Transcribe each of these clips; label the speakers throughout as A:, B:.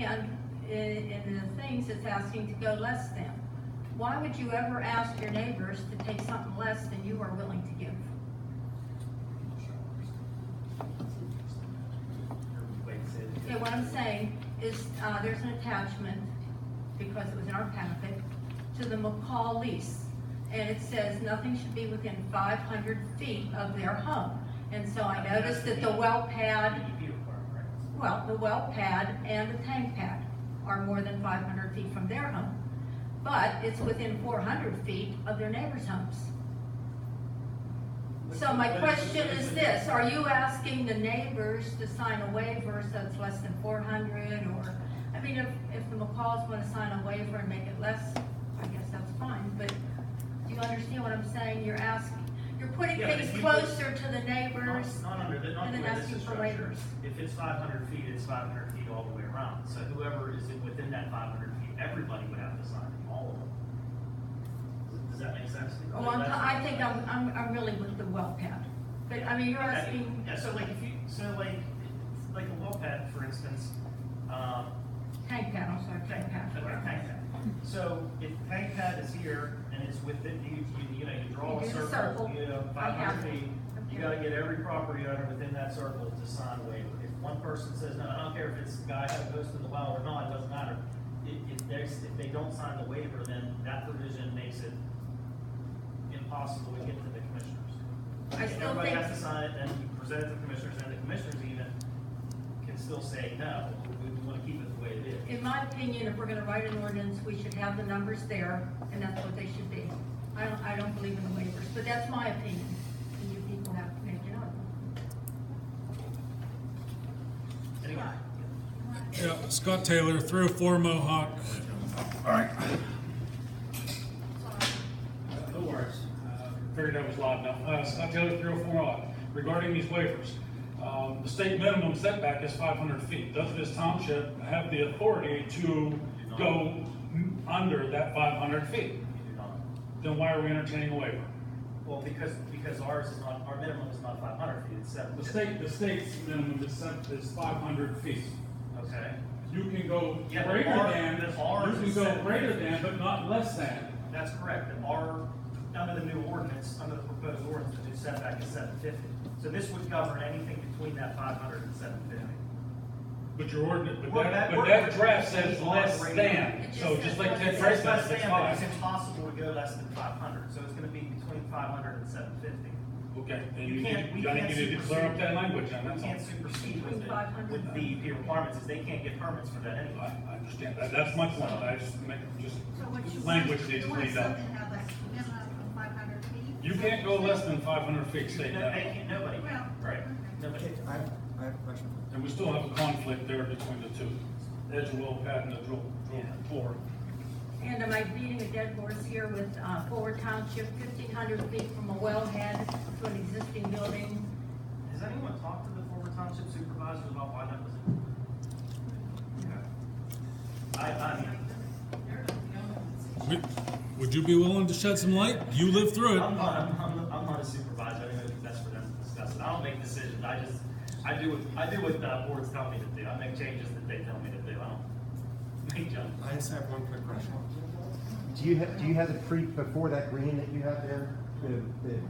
A: and, and and the things it's asking to go less than. Why would you ever ask your neighbors to take something less than you are willing to give? Okay, what I'm saying is, uh, there's an attachment, because it was in our packet, to the McCall lease. And it says nothing should be within five hundred feet of their home. And so I noticed that the well pad,
B: DEP requirement, right?
A: well, the well pad and the tank pad are more than five hundred feet from their home. But it's within four hundred feet of their neighbors' homes. So my question is this, are you asking the neighbors to sign a waiver so it's less than four hundred or, I mean, if, if the McCalls wanna sign a waiver and make it less, I guess that's fine, but do you understand what I'm saying? You're asking, you're putting
B: Yeah, but
A: things
B: if you put-
A: closer to the
B: Not,
A: neighbors.
B: not under, the- not
A: and
B: the
A: then
B: way this
A: asking
B: is
A: for
B: structured.
A: waivers.
B: If it's five hundred feet, it's five hundred feet all the way around. So whoever is in- within that five hundred feet, everybody would have to sign, it, all of them. Does- Does that make sense?
A: Oh, I'm, I think I'm, I'm, I'm really with the well pad, but I mean, you're
B: Okay.
A: asking,
B: Yeah, so like if you, so like, like a well pad, for instance, um,
A: tank pad, I'm sorry, tank pad.
B: Okay, tank pad. So if tank pad is here and it's within, you, you, you know, you
A: You
B: draw a
A: do the
B: circle,
A: circle.
B: you know,
A: I
B: five
A: have
B: hundred
A: it.
B: feet, you
A: Okay.
B: gotta get every property owner within that circle to sign a waiver. If one person says, no, I don't care if it's the guy that goes to the well or not, it doesn't matter. If, if there's, if they don't sign the waiver, then that provision makes it impossible to get to the commissioners.
A: I
B: If
A: still
B: Everybody
A: think-
B: has to sign it and you present it to the commissioners and the commissioners even can still say, no, we, we wanna keep it the way it is.
A: In my opinion, if we're gonna write an ordinance, we should have the numbers there, and that's what they should be. I don't, I don't believe in the waivers, but that's my opinion, and you people have to make it up.
B: Anyway.
C: Yeah, Scott Taylor, three or four Mohawk.
D: No worries. Uh, Figured that was loud enough. Uh, Scott Taylor, three oh four odd. Regarding these waivers, um, the state minimum setback is five hundred feet. Does this township have the authority to go m- under that five hundred feet?
B: You do not.
D: Then why are we entertaining a waiver?
B: Well, because, because ours is not, our minimum is not five hundred feet, it's seven.
D: The state, the state's minimum is set, is five hundred feet.
B: Okay,
D: You can go
B: Yeah,
D: greater
B: but our-
D: than,
B: but ours
D: you can
B: is
D: go
B: set-
D: greater than, but not less than.
B: that's correct, and our, under the new ordinance, under the proposed ordinance, the new setback is seven fifty. So this would govern anything between that five hundred and seven fifty.
D: But your ordinance, but
B: Well,
D: that,
B: that
D: but that
B: ordinance
D: draft says
B: is
D: less
B: on rate.
D: than,
A: It
D: so
A: just
D: just
A: says
D: like
A: less
D: Ted
A: than.
B: It's
D: Price
B: less
D: says,
B: than,
D: it's
B: but it's
D: five.
B: impossible to go less than five hundred, so it's gonna be between five hundred and seven fifty.
D: Okay, then
B: You
D: you need,
B: can't- we
D: you I
B: can't
D: think you need to clear up that language, and
B: We
D: that's
B: can't
D: all.
B: supersede with the,
A: 500.
B: with the DEP requirements, is they can't get permits for that anyway.
D: I, I understand, that, that's my point, I just make, just,
E: So what you want,
D: language needs
E: you
D: to
E: want
D: lead up.
E: something that was minimum of five hundred feet?
D: You can't go less than five hundred
B: No,
D: feet, state
B: they
D: that,
B: can't, nobody,
E: Well,
B: can. right, nobody.
F: Okay, I have, I have a question.
D: and we still have a conflict there between the two. Edge well pad and the drill, drill core.
A: And am I beating a dead horse here with, uh, Forward Township, fifteen hundred feet from a wellhead to an existing building?
B: Has anyone talked to the former township supervisors about why that was? I, I mean,
C: Would- Would you be willing to shed some light? You lived
B: I'm
C: through it.
B: not, I'm, I'm, I'm not a supervisor, I don't think that's for them to discuss, and I don't make decisions, I just, I do what, I do what the boards tell me to do, I make changes that they tell me to do, I don't make jump.
F: I just have one quick question.
G: Do you have, do you have the pre, before that green that you have there, the, the? the-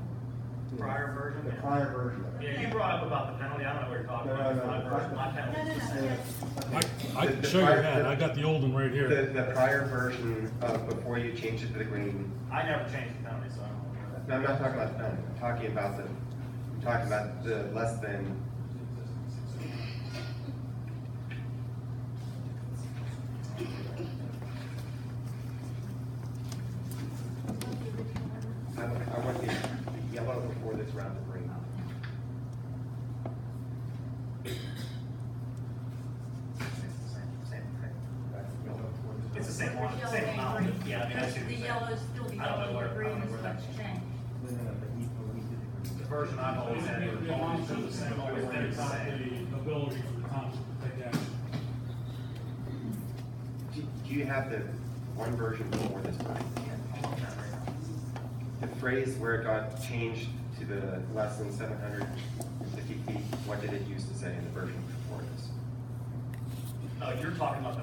B: Prior version,
G: The
B: yeah.
G: prior version of it.
B: Yeah, you brought up about the penalty, I don't know what you're talking
G: No, no,
B: about,
G: no,
B: my,
G: no.
B: version- my
E: No, no,
B: penalty.
E: no, yes.
C: I, I can show your hand, I got the old one right
H: The,
C: here.
H: the prior version of before you changed it to the green,
B: I never changed the penalty, so I don't know.
H: no, I'm not talking about the penalty, I'm talking about the, I'm talking about the less than. I, I want the the yellow before this round of green.
G: That's the yellow one.
B: It's the same one,
A: Yellow
B: same
A: and
B: amount,
A: green.
B: yeah, I mean, I see what
A: The
B: you're saying.
A: yellow's still the
B: I don't know
A: yellow,
B: where-
A: the
B: I
A: green
B: don't know
A: is
B: where that-
A: what's changed.
G: No, no, no, but we, but we did it.
B: The version I've always had,
D: It belongs to the same,
B: always been the
D: not
B: same.
D: the ability for the township to take action.
H: Do, do you have the one version before this one? The phrase where it got changed to the less than seven hundred fifty feet, what did it used to say in the version before this?
B: Oh, you're talking about the